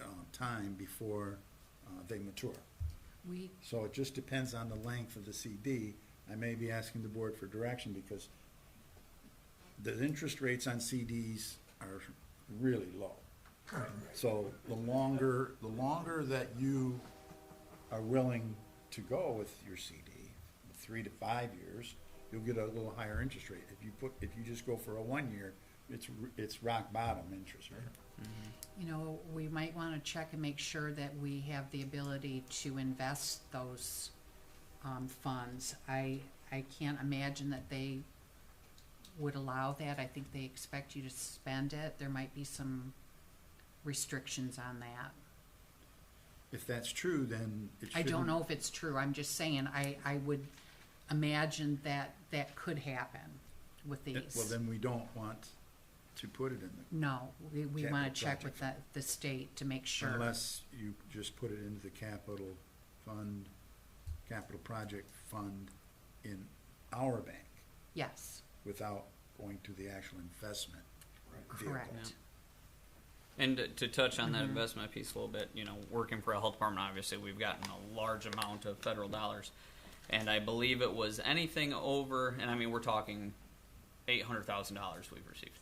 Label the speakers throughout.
Speaker 1: um, time before uh, they mature.
Speaker 2: We,
Speaker 1: So it just depends on the length of the CD. I may be asking the board for direction because the interest rates on CDs are really low. So the longer, the longer that you are willing to go with your CD, three to five years, you'll get a little higher interest rate. If you put, if you just go for a one year, it's, r- it's rock bottom interest rate.
Speaker 2: you know, we might want to check and make sure that we have the ability to invest those um, funds. I, I can't imagine that they would allow that. I think they expect you to spend it. There might be some restrictions on that.
Speaker 1: If that's true, then it
Speaker 2: I
Speaker 1: shouldn't.
Speaker 2: don't know if it's true. I'm just saying, I, I would imagine that that could happen with
Speaker 1: Yeah, Well,
Speaker 2: these.
Speaker 1: then we don't want to put it in the,
Speaker 2: No, we, we want
Speaker 1: Capital
Speaker 2: to check with the, the state to make sure.
Speaker 1: unless you just put it into the capital fund, capital project fund in our bank
Speaker 2: Yes,
Speaker 1: without going to the actual investment vehicle.
Speaker 2: correct.
Speaker 3: And to, to touch on that
Speaker 2: Mm-hmm.
Speaker 3: investment piece a little bit, you know, working for a health department, obviously, we've gotten a large amount of federal dollars. And I believe it was anything over, and I mean, we're talking $800,000 we've received.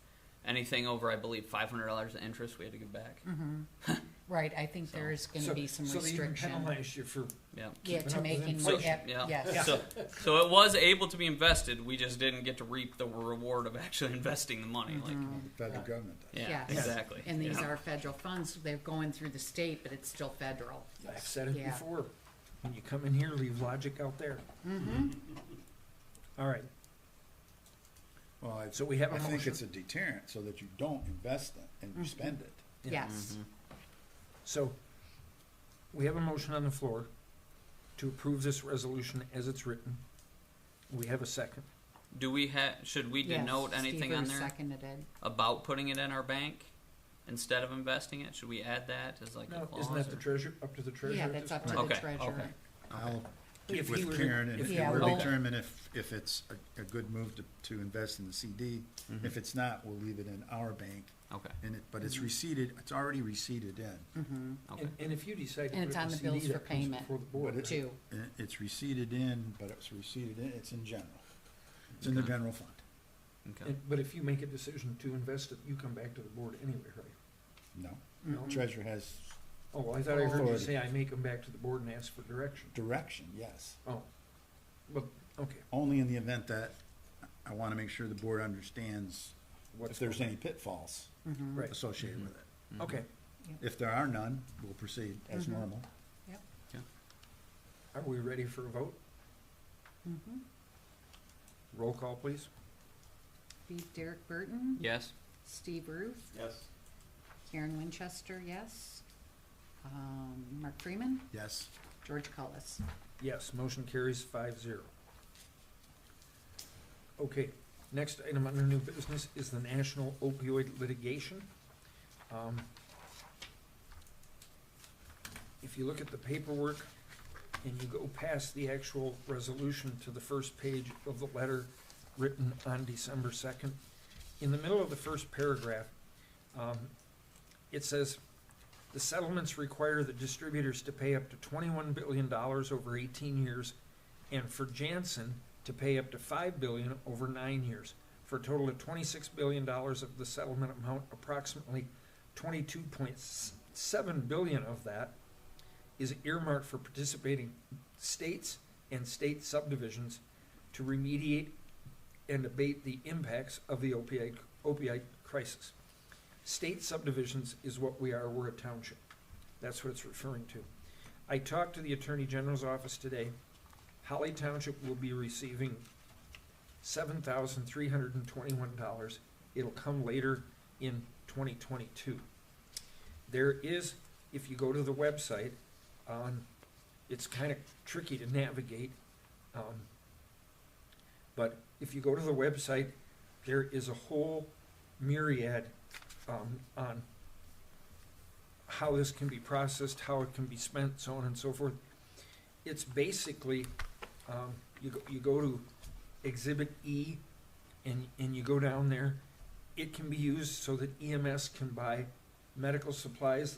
Speaker 3: Anything over, I believe, $500 in interest we had to give back.
Speaker 2: Mm-hmm. Right, I think there is going to
Speaker 4: So-
Speaker 2: be some
Speaker 4: So they even
Speaker 2: restriction.
Speaker 4: penalize you for.
Speaker 3: Yeah.
Speaker 2: Yeah,
Speaker 4: keeping
Speaker 2: to
Speaker 4: up with
Speaker 2: making,
Speaker 4: inflation.
Speaker 2: yep,
Speaker 3: Yeah.
Speaker 2: yes,
Speaker 3: So, so it was able to be invested. We just didn't get to reap the reward of actually investing the money. Like,
Speaker 1: The federal government does.
Speaker 3: yeah,
Speaker 2: Mm-hmm. Yes.
Speaker 3: exactly.
Speaker 2: and these
Speaker 3: Yeah.
Speaker 2: are federal funds, they're going through the state, but it's still federal.
Speaker 4: I've said it
Speaker 2: Yeah.
Speaker 4: before. When you come in here, leave logic out there.
Speaker 2: Mm-hmm.
Speaker 4: All right.
Speaker 1: Well, I,
Speaker 4: So we have a
Speaker 1: I think
Speaker 4: motion. Mm-hmm.
Speaker 1: it's a deterrent so that you don't invest it and you spend it.
Speaker 4: Yeah.
Speaker 3: Mm-hmm.
Speaker 2: Yes,
Speaker 4: So we have a motion on the floor to approve this resolution as it's written. We have a second.
Speaker 3: Do we have? Should we
Speaker 2: Yes,
Speaker 3: denote anything
Speaker 2: Stever
Speaker 3: on there?
Speaker 2: seconded it.
Speaker 3: about putting it in our bank instead of investing it? Should we add that as like a
Speaker 4: No,
Speaker 3: clause?
Speaker 4: isn't that the
Speaker 3: or-
Speaker 4: treasurer, up to the treasurer?
Speaker 2: Yeah,
Speaker 4: at
Speaker 2: that's
Speaker 4: this
Speaker 2: up to
Speaker 4: point?
Speaker 2: the
Speaker 3: Okay,
Speaker 2: treasurer.
Speaker 3: okay.
Speaker 1: I'll get
Speaker 4: If he
Speaker 1: with
Speaker 4: were-
Speaker 1: Karen and
Speaker 4: if
Speaker 1: if
Speaker 2: he were-
Speaker 1: we'll determine if, if it's a, a good move to, to invest in the CD.
Speaker 4: Mm-hmm.
Speaker 1: If it's not, we'll leave it in our bank
Speaker 3: Okay,
Speaker 1: and it, but it's receded, it's already receded in.
Speaker 2: Mm-hmm.
Speaker 3: okay.
Speaker 4: And, and if you decide. to
Speaker 2: And
Speaker 4: put
Speaker 2: it's
Speaker 4: it in
Speaker 2: on the
Speaker 4: CD,
Speaker 2: bills
Speaker 4: that
Speaker 2: for
Speaker 4: comes
Speaker 2: payment.
Speaker 4: Before the
Speaker 1: But
Speaker 4: board.
Speaker 1: it-
Speaker 2: Two.
Speaker 1: It- It's receded in, but it's receded in, it's in general. It's in the
Speaker 3: Okay.
Speaker 1: general fund.
Speaker 3: okay.
Speaker 4: And- But if you make a decision to invest it, you come back to the board anyway, right?
Speaker 1: No,
Speaker 4: No?
Speaker 2: Mm-hmm.
Speaker 1: treasurer has
Speaker 4: Oh, I thought I heard you
Speaker 1: Authority.
Speaker 4: say I make them back to the board and ask for direction.
Speaker 1: direction, yes.
Speaker 4: Oh, but, okay.
Speaker 1: Only in the event that I want to make sure the board understands if
Speaker 4: What's
Speaker 1: there's
Speaker 4: going Mm-hmm.
Speaker 1: any pitfalls
Speaker 2: Mhm.
Speaker 4: Right,
Speaker 1: associated with it.
Speaker 3: Mm-hmm.
Speaker 4: okay,
Speaker 1: If there are none, we'll proceed as
Speaker 4: Mm-hmm.
Speaker 2: Mhm.
Speaker 1: normal. Mm-hmm.
Speaker 4: are we ready for a vote?
Speaker 2: Mhm.
Speaker 4: Roll call, please.
Speaker 2: Be Derek Burton,
Speaker 3: Yes,
Speaker 2: Steve Ruth,
Speaker 5: Yes.
Speaker 2: Karen Winchester, yes. Um, Mark Freeman,
Speaker 1: Yes,
Speaker 2: George Cullis.
Speaker 4: Yes, motion carries five zero. Okay, next item under new business is the national opioid litigation. Um, If you look at the paperwork and you go past the actual resolution to the first page of the letter written on December second, in the middle of the first paragraph, um, it says, the settlements require the distributors to pay up to twenty-one billion dollars over eighteen years, and for Janssen to pay up to five billion over nine years, for a total of twenty-six billion dollars of the settlement amount. Approximately twenty-two point seven billion of that is earmarked for participating states and state subdivisions to remediate and abate the impacts of the opioid opioid crisis. State subdivisions is what we are, we're a township. That's what it's referring to. I talked to the Attorney General's office today. Holly Township will be receiving seven thousand three hundred and twenty-one dollars. It'll come later in twenty twenty-two. There is, if you go to the website, um, it's kind of tricky to navigate. um, But if you go to the website, there is a whole myriad um, on how this can be processed, how it can be spent, so on and so forth. It's basically, um, you go, you go to Exhibit E and, and you E go down there. It can be used so that EMS can buy medical supplies